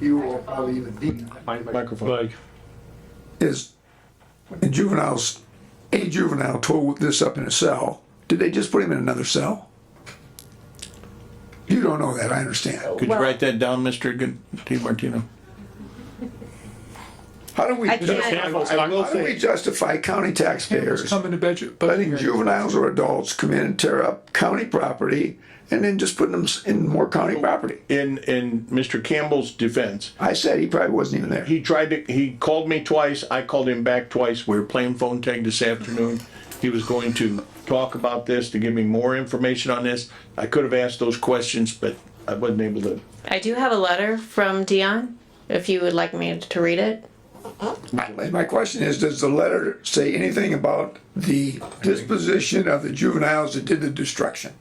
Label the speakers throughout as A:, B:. A: you or probably even Dean,
B: Microphone.
C: Like,
A: is when juveniles, a juvenile tore this up in a cell, did they just put him in another cell? You don't know that, I understand.
B: Could you write that down, Mr. Good- T. Martino?
A: How do we,
D: I can't-
A: justify- how do we justify county taxpayers
E: Come in the budget, but
A: letting juveniles or adults come in and tear up county property and then just putting them s- in more county property?
B: In, in Mr. Campbell's defense,
A: I said he probably wasn't even there.
B: he tried to, he called me twice, I called him back twice, we were playing phone tag this afternoon. He was going to talk about this, to give me more information on this. I could have asked those questions, but I wasn't able to.
D: I do have a letter from Dion, if you would like me to read it.
A: My my question is, does the letter say anything about the disposition of the juveniles that did the destruction?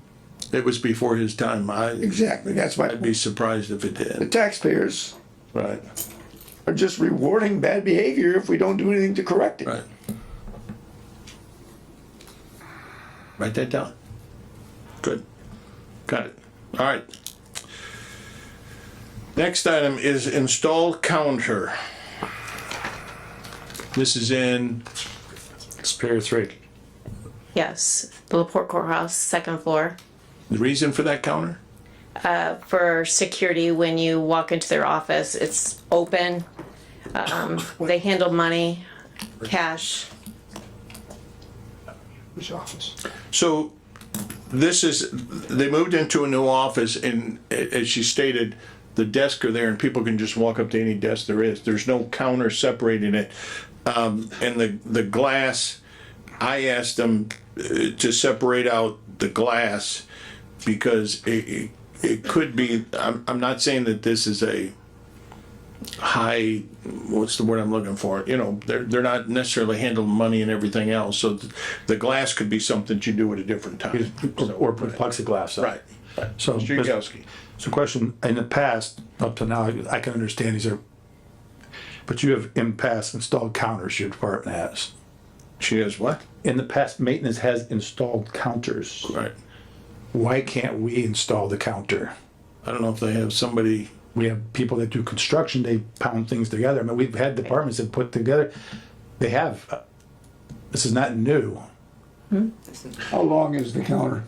B: It was before his time, I,
A: Exactly, that's my
B: I'd be surprised if it did.
A: taxpayers
B: Right,
A: are just rewarding bad behavior if we don't do anything to correct it.
B: right. Write that down. Good. Got it. All right. Next item is install counter. This is in,
C: Superior Three.
D: Yes, the Laporte Courthouse, second floor,
B: the reason for that counter?
D: for security when you walk into their office. It's open. Um, they handle money, cash.
E: which office?
B: So this is, they moved into a new office and a- as she stated, the desks are there and people can just walk up to any desk there is. There's no counter separating it. Um, and the, the glass, I asked them uh, to separate out the glass because it, it, it could be, I'm, I'm not saying that this is a high, what's the word I'm looking for? You know, they're, they're not necessarily handling money and everything else, so th- the glass could be something you do at a different time.
C: Or put plexiglass up.
B: Right.
C: So,
B: Mr.
C: so
B: Yagowski.
C: question, in the past, up to now, I can understand these are, but you have in past installed counters your department has.
B: She has what?
C: In the past, maintenance has installed counters.
B: Right.
C: Why can't we install the counter?
B: I don't know if they have somebody,
C: We have people that do construction, they pound things together. I mean, we've had departments that put together, they have, uh, this is not new.
A: How long is the counter?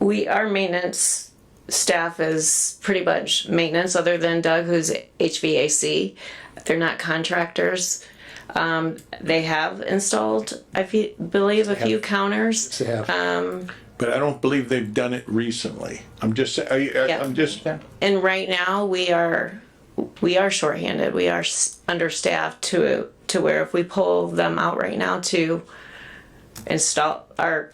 D: We, our maintenance staff is pretty much maintenance, other than Doug, who's HVAC. They're not contractors. Um, they have installed, I fe- believe, a few counters.
C: They have.
B: but I don't believe they've done it recently. I'm just, sa- are you- I-
D: Yeah.
B: I'm just,
D: and right now we are we are shorthanded we are s- understaffed to to where if we pull them out right now to install our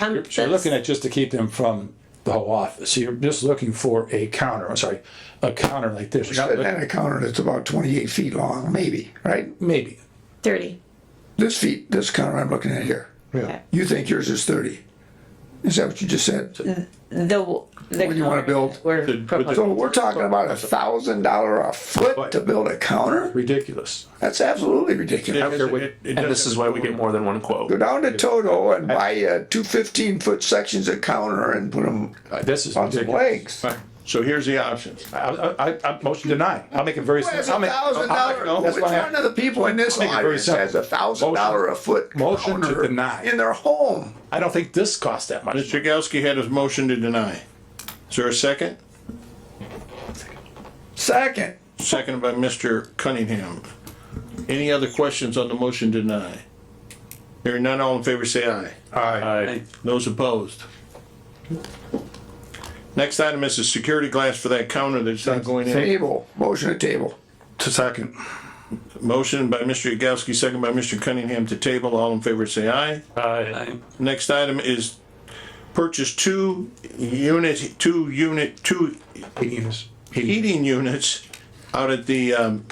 D: um,
C: So you're looking at just to keep them from the whole office. So you're just looking for a counter, I'm sorry, a counter like this. You're not
A: And
C: looking-
A: a counter that's about twenty-eight feet long, maybe, right?
C: Maybe.
D: 30
A: This feet, this counter I'm looking at here,
C: Yeah.
A: you think yours is thirty? Is that what you just said?
D: the the
A: What do you wanna build?
B: The-
D: we're
B: with the-
D: proposing.
A: So we're talking about a thousand dollar a foot to build a counter?
C: Ridiculous.
A: That's absolutely ridiculous.
B: it- it
F: And this
B: doesn't-
F: is why we get more than one quote.
A: Go down to Toto and buy uh, two fifteen-foot sections of counter and put them
F: Uh, This is
A: on some
F: ridiculous.
A: legs.
B: so here's the options.
C: I, I, I- I, motion deny. I'll make it very.
A: Well, It's
C: I'll
A: a
C: make-
A: thousand
C: I'll-
A: dollar,
C: I'll-
A: which
C: that's why I-
A: one of the people in this
C: Make it very
A: audience has
C: simple.
A: a thousand
C: Motion-
A: dollar a foot
C: motion to
A: counter
C: deny.
A: in their home?
C: I don't think this costs that much.
B: Mr. Yagowski had his motion to deny. Is there a second?
A: Second,
B: Seconded by Mr. Cunningham. Any other questions on the motion to deny? Hearing none, all in favor say aye.
F: Aye.
B: Those opposed? Next item is the security glass for that counter that's not going in.
A: table, motion to table.
C: To second.
B: Motion by Mr. Yagowski, second by Mr. Cunningham to table. All in favor say aye.
F: Aye.
B: Next item is purchase two unit, two unit, two
C: Yes.
B: heating units out at the, um,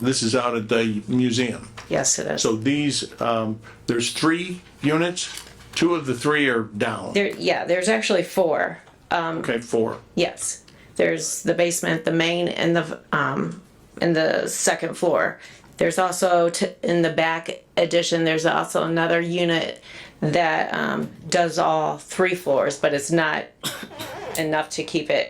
B: this is out at the museum.
D: yes it is
B: So these, um, there's three units, two of the three are down,
D: there yeah there's actually four
B: okay, four.
D: yes there's the basement the main and the um and the second floor there's also t- in the back addition there's also another unit that um, does all three floors but it's not enough to keep it